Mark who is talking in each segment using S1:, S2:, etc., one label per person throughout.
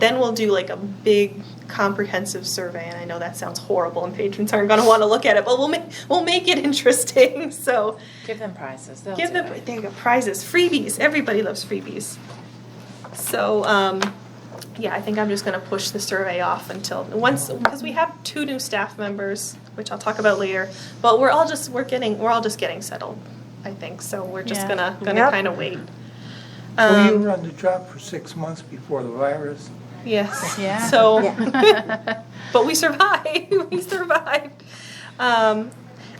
S1: then we'll do like a big comprehensive survey. And I know that sounds horrible, and patrons aren't going to want to look at it, but we'll make we'll make it interesting. So
S2: Give them prizes. They'll
S1: give
S2: do
S1: them
S2: it.
S1: there you go prizes, freebies. Everybody loves freebies. So um, yeah, I think I'm just going to push the survey off until once because we have two new staff members, which I'll talk about later. But we're all just we're getting we're all just getting settled. I think so. We're just
S2: Yeah.
S1: gonna gonna
S3: Yep.
S1: kind of wait.
S4: Well, you
S1: Um,
S4: were on the job for six months before the virus.
S1: Yes.
S2: Yeah.
S1: So,
S2: Yeah.
S1: but we survived. we survived. Um,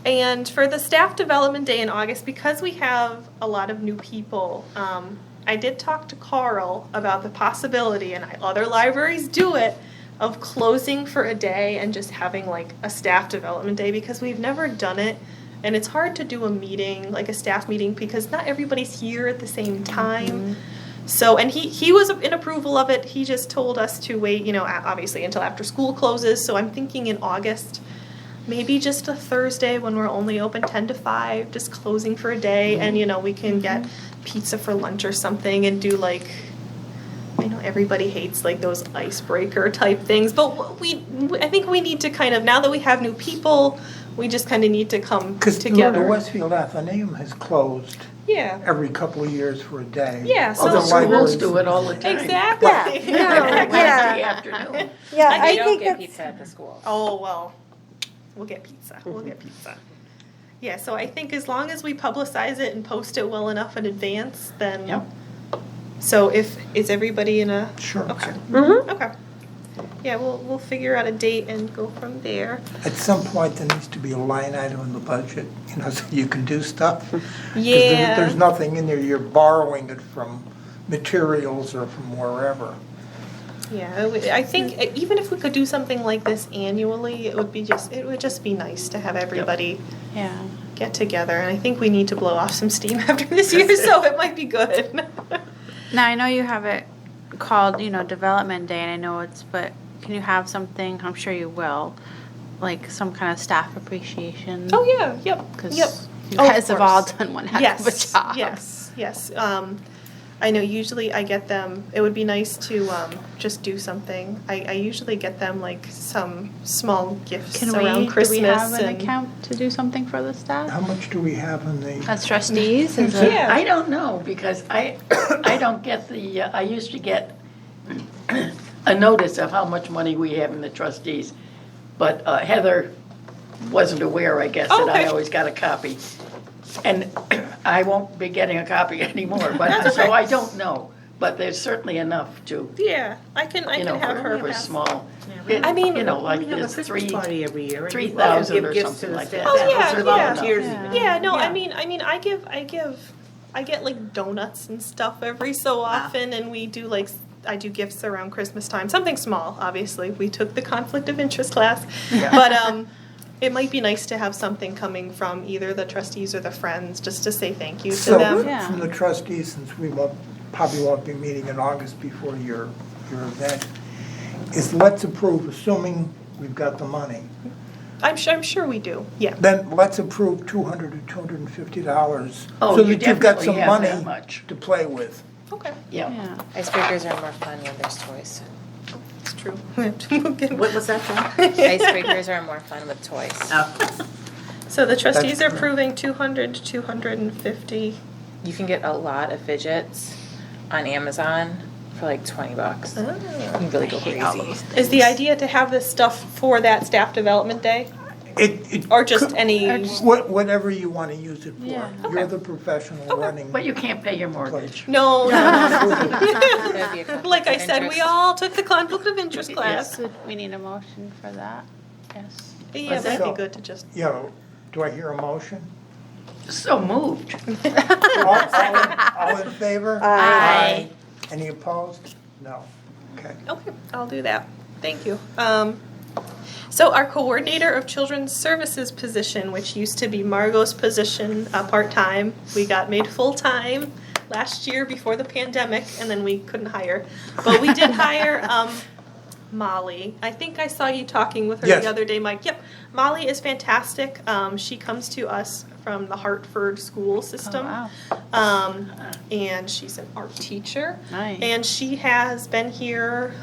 S1: and for the staff development day in August, because we have a lot of new people, um, I did talk to Carl about the possibility, and I, other libraries do it, of closing for a day and just having like a staff development day because we've never done it. And it's hard to do a meeting, like a staff meeting, because not everybody's here at the same time. So, and he he was in approval of it. He just told us to wait, you know, a- obviously until after school closes. So I'm thinking in August, maybe just a Thursday when we're only open ten to five, just closing for a day,
S3: Mm-hmm.
S1: and you know we can get pizza for lunch or something and do like. I know everybody hates like those icebreaker type things, but we I think we need to kind of now that we have new people, we just kind of need to come
S4: Because
S1: together.
S4: the Westfield Athenaeum has closed
S1: yeah.
S4: every couple of years for a day.
S1: Yeah, so-
S4: Other
S1: Schools
S4: libraries-
S5: Schools do it all the time.
S1: Exactly.
S3: Yeah, no,
S5: Every
S3: yeah.
S5: Wednesday afternoon.
S3: Yeah,
S2: And
S3: I
S2: you don't
S3: think
S2: get
S3: that's.
S2: pizza at the school.
S1: Oh well, we'll get pizza. We'll get pizza. Yeah, so I think as long as we publicize it and post it well enough in advance, then.
S5: Yep.
S1: So if is everybody in a
S4: Sure.
S1: okay
S3: Mhm.
S1: okay, yeah, we'll we'll figure out a date and go from there.
S4: At some point, there needs to be a line item in the budget, you know, so you can do stuff. 'Cause
S1: Yeah.
S4: There's, there's nothing in there, you're borrowing it from materials or from wherever.
S1: Yeah, I would- I think even if we could do something like this annually, it would be just it would just be nice to have everybody
S2: Yeah.
S1: get together. And I think we need to blow off some steam after this year, so it might be good.
S6: Now I know you have it called, you know, development day, and I know it's, but can you have something? I'm sure you will, like some kind of staff appreciation.
S1: oh yeah, yep,
S6: because
S1: yep.
S6: you
S1: Oh, of
S6: guys have all
S1: course.
S6: done one heck
S1: yes,
S6: of a job.
S1: Yes, yes. Um, I know usually I get them, it would be nice to um, just do something. I, I usually get them like some small gifts
S6: Can
S1: around
S6: we?
S1: Christmas.
S6: do we have an
S1: and,
S6: account to do something for the
S4: How
S6: staff?
S4: much do we have in the,
S6: As trustees, is it?
S1: Yeah.
S5: I don't know, because I, I don't get the, uh, I used to get a notice of how much money we have in the trustees, but uh, Heather wasn't aware, I guess, that
S1: Okay.
S5: I always got a copy. And I won't be getting a copy anymore, but, so I don't know, but there's certainly enough to,
S1: Yeah, I can. I
S5: you
S1: can
S5: know,
S1: have
S5: for
S1: her.
S5: for
S1: pass-
S5: small.
S1: I mean,
S5: You know, like
S7: We have a
S5: there's
S7: Christmas
S5: three,
S7: party every year. and
S5: three
S7: people have to
S5: thousand
S7: give
S5: or
S7: gifts to
S5: something
S7: the
S5: like
S7: staff.
S1: Oh,
S5: that.
S1: yeah,
S7: Those are
S1: yeah.
S7: volunteers.
S6: Yeah.
S1: Yeah, no, I
S7: Um, Yeah.
S1: mean, I mean, I give, I give, I get like donuts and stuff every so often, and we do like, s- I do gifts around Christmas time, something small. Obviously, we took the conflict of interest class, but um, it might be nice to have something coming from either the trustees or the friends, just to say thank you to
S4: so
S5: um,
S1: them.
S6: Yeah.
S4: from the trustees, since we won't, probably won't be meeting in August before your, your event, is let's approve, assuming we've got the money.
S1: I'm sure, I'm sure we do. Yeah,
S4: Then let's approve two hundred or two hundred and fifty dollars.
S5: Oh,
S4: so
S5: you
S4: that you've got
S5: definitely
S4: some
S5: have
S4: money
S5: that much.
S4: To play with.
S1: okay,
S7: Oh.
S5: Yeah.
S6: Yeah.
S2: Icebreakers are more fun when there's toys.
S1: it's true. We'll
S7: What was that for?
S2: Icebreakers are more fun with toys.
S5: Oh.
S1: so the trustees are
S4: That's-
S1: approving 200 to 250.
S2: You can get a lot of fidgets on Amazon for like twenty bucks. You
S7: Oh.
S2: can really go crazy.
S1: Is the idea to have this stuff for that staff development day?
S4: It, it.
S1: Or just
S4: could-
S1: any.
S4: What, whatever you want to use it
S6: Yeah.
S4: for. You're the professional running.
S5: But you can't pay your mortgage.
S1: No, no,
S2: That'd be a conflict
S1: like I
S2: of
S1: said, we
S2: interest.
S1: all took the conflict of interest
S5: Yeah.
S1: class.
S6: So we need a motion for that. Yes.
S1: Yeah,
S4: Let's
S1: that'd
S4: go.
S1: be good to just.
S4: You know, do I hear a motion?
S5: So moved.
S4: All, all in- all in favor?
S6: Uh,
S4: Aye. Any opposed? No. Okay.
S1: Okay, I'll do that. Thank you. Um, so our coordinator of children's services position, which used to be Margot's position, uh, part-time, we got made full-time last year before the pandemic, and then we couldn't hire. But we did hire, um, Molly. I think I saw you talking with her
S4: Yes.
S1: the other day, Mike. Yep, Molly is fantastic. Um, she comes to us from the Hartford school system.
S6: Oh, wow.
S1: Um, and she's an art teacher.
S6: Nice.
S1: And she has been here